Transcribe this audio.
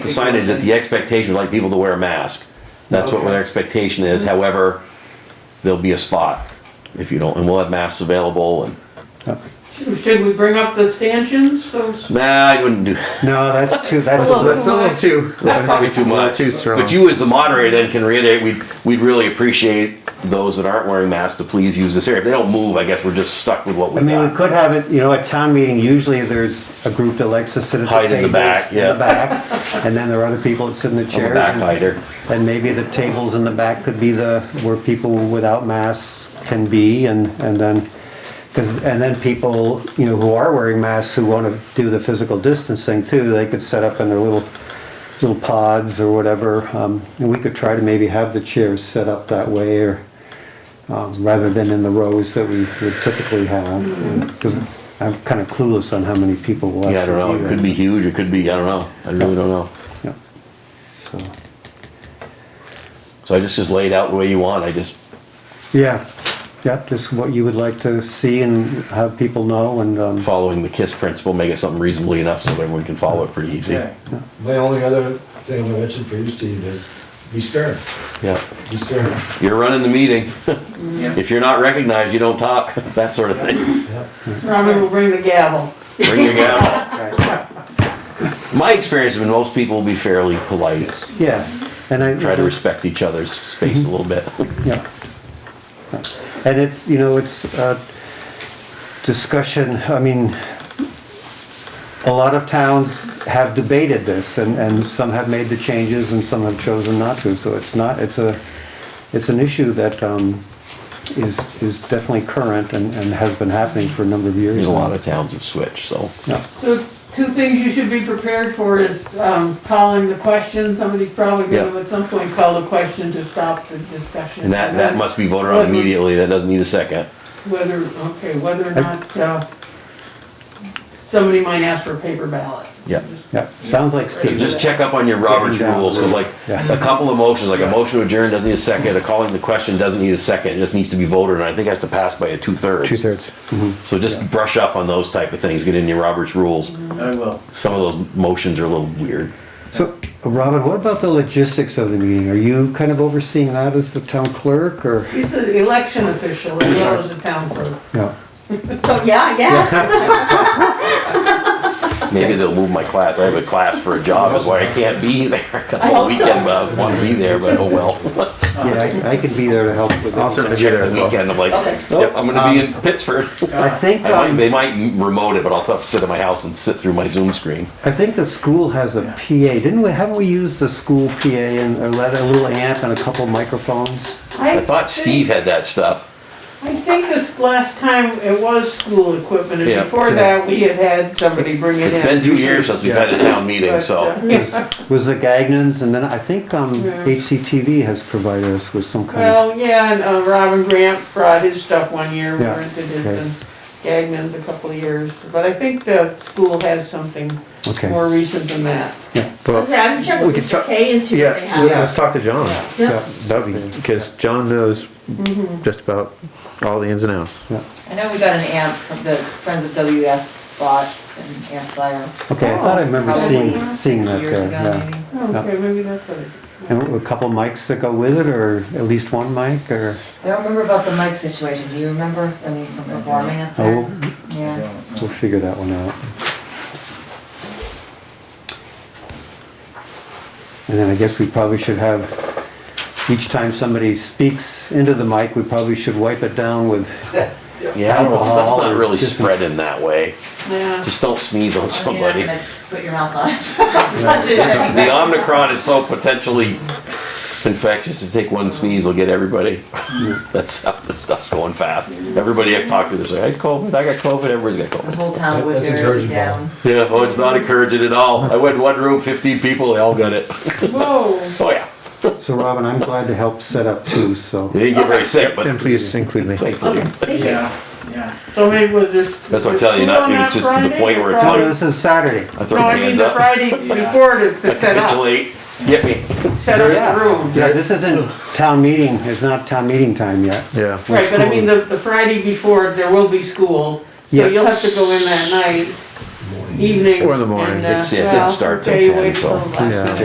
signage that the expectation, would like people to wear a mask. That's what Okay. Mm-hmm. their expectation is, however, there'll be a spot if you don't, and we'll have masks available and, Should we bring up the stanchions? Those- nah, I wouldn't do, No, that's too, that's, Well, That's a little too. that's probably that's too a little much. Too strong. But you as the moderator then can reiterate, we'd, we'd really appreciate those that aren't wearing masks to please use this area. If they don't move, I guess we're just stuck with what I we mean, we got. could have it, you know, at town meeting, usually there's a group that likes to sit at the Hide in the tables back, in the yeah. back, And then there are other people that sit in the I'm a chairs. and- backbiter. And maybe the tables in the back could be the, where people without masks can be and, and then, because, and then people, you know, who are wearing masks who want to do the physical distancing too, they could set up in their little, little pods or whatever. Um, And we could try to maybe have the chairs set up that way or, um, rather than in the rows that we would typically have. Because I'm kind of clueless on how many people will actually be Mm-hmm. Yeah, I don't know, it could be huge, it could be, I don't know, I really don't know. there. Yeah. So. So I just, just laid out the way you want, I just, Yeah, yeah, just what you would like to see and have people know and, um, following the KISS principle, make it something reasonably enough so everyone can follow it pretty easy. Yeah. My only other thing I mentioned for you, Steve, is be stern, Yeah. be stern. You're running the meeting. Yeah. If you're not recognized, you don't talk, that sort of thing. Robin will bring the gavel. Bring your gavel. My experience has been most people will be fairly polite, yeah, and I. try to respect each other's space a little bit. Yeah. And it's, you know, it's, uh, discussion, I mean, a lot of towns have debated this and, and some have made the changes and some have chosen not to, so it's not, it's a, it's an issue that, um, is, is definitely current and, and has been happening for a number of years. There's a lot of towns have switched, so. Yeah. So two things you should be prepared for is um, calling the question. Somebody's probably going Yeah. to at some point call the question to stop the discussion. And that, that must be voted on immediately, that doesn't need a second. Whether, okay, whether or not uh, somebody might ask for a paper ballot. Yeah. Yeah, sounds like So Steve. Just check up on your Robert's rules, because like, a couple of motions, like a motion to adjourn doesn't need a second, a calling the question doesn't need a second, it just needs to be voted, and I think it has to pass by a two-thirds. Two-thirds. Mm-hmm. So just brush up on those type of things, get in your Robert's rules. I will. Some of those motions are a little weird. So, Robin, what about the logistics of the meeting? Are you kind of overseeing that as the town clerk or? She's an election official as well as a town clerk. No. So, yeah, I guess. Maybe they'll move my class, I have a class for a job, that's why I can't be there. hope On so. weekend, but I want to be there, but oh well. Yeah, I I could be there to help with I'll that. certainly- Check the weekend, I'm like, Okay. yep, I'm gonna be in Pittsburgh. I think, I might, um, they might remote it, but I'll still have to sit in my house and sit through my Zoom screen. I think the school has a PA. Didn't we, haven't we used the school PA and a let- a little amp and a couple microphones? I thought Steve had that stuff. I think this last time it was school equipment, Yeah. and before that, we had had somebody bring it in. It's been two years since we've had a town meeting, But, so. uh, yes. Was the Gagnon's and then I think, um, Yeah. HCTV has provided us with some kind of. Well, yeah, and uh, Robin Grant brought his stuff one year, we Yeah, rented his, okay. and Gagnon's a couple of years, but I think the school has something Okay. more recent than that. Let's see, Well, I can check We with could Mr. talk- K and see yeah, what they well, have. let's talk to John. Yeah. That'd be, because John knows just about all the ins and outs. I know we got an amp from the Friends of WS bought an amplifier. Okay, I thought I remember probably seeing, six seeing that years there, ago, yeah. maybe. Okay, maybe that's what it is. And a couple mics that go with it or at least one mic or? I don't remember about the mic situation, do you remember, I mean, from performing up Oh, there? we'll- Yeah, We'll figure that one out. And then I guess we probably should have, each time somebody speaks into the mic, we probably should wipe it down with, Yeah, I don't know, that's Alcohol not or really just- spreading that way. Yeah, Just don't sneeze on You're not somebody. gonna Put your mouth on it. Such a- The Omicron is so potentially infectious, if you take one sneeze, will get everybody. That's, how this stuff's going fast. Everybody I've talked to, they say, I had COVID, I got COVID, everybody's got The COVID. whole town would That's be encouraging, Bob. down. Yeah, oh, it's not encouraging at all. I went in one room, fifteen people, they all got it. whoa, Oh, yeah. so Robin, I'm glad to help set up too, so. They didn't get very sick, And but please include me. thankfully. Yeah, yeah. so maybe we'll just. That's what I'm telling you, not- School on it's just to the Friday point or where it's Oh, Friday? no, this is Saturday. I throw No, my I mean hands the up. Friday before to to set up, Capitulate, get me. set up the room. Yeah, this isn't town meeting, it's not town meeting time yet. Yeah. Right, but I school. mean, the, the Friday before, there will be school, so Yes. you'll have to go in that night, evening. Or in the morning. and, uh, It's- it didn't well, start till okay, 10, wait so- till last Yeah. minute.